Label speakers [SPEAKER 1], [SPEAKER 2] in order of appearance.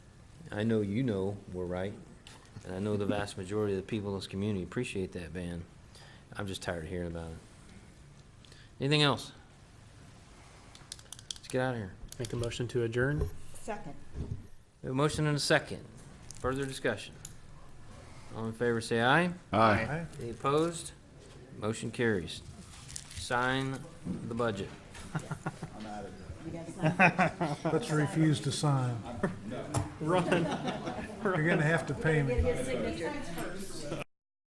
[SPEAKER 1] I know you know we're right, and I know the vast majority of the people in this community appreciate that ban. I'm just tired of hearing about it. Anything else? Let's get out of here.
[SPEAKER 2] Make a motion to adjourn?
[SPEAKER 3] Second.
[SPEAKER 1] We have a motion and a second. Further discussion? All in favor, say aye.
[SPEAKER 4] Aye.
[SPEAKER 1] Any opposed? Motion carries. Sign the budget.
[SPEAKER 5] Let's refuse to sign.
[SPEAKER 2] Run.
[SPEAKER 5] You're gonna have to pay me.
[SPEAKER 3] Signature.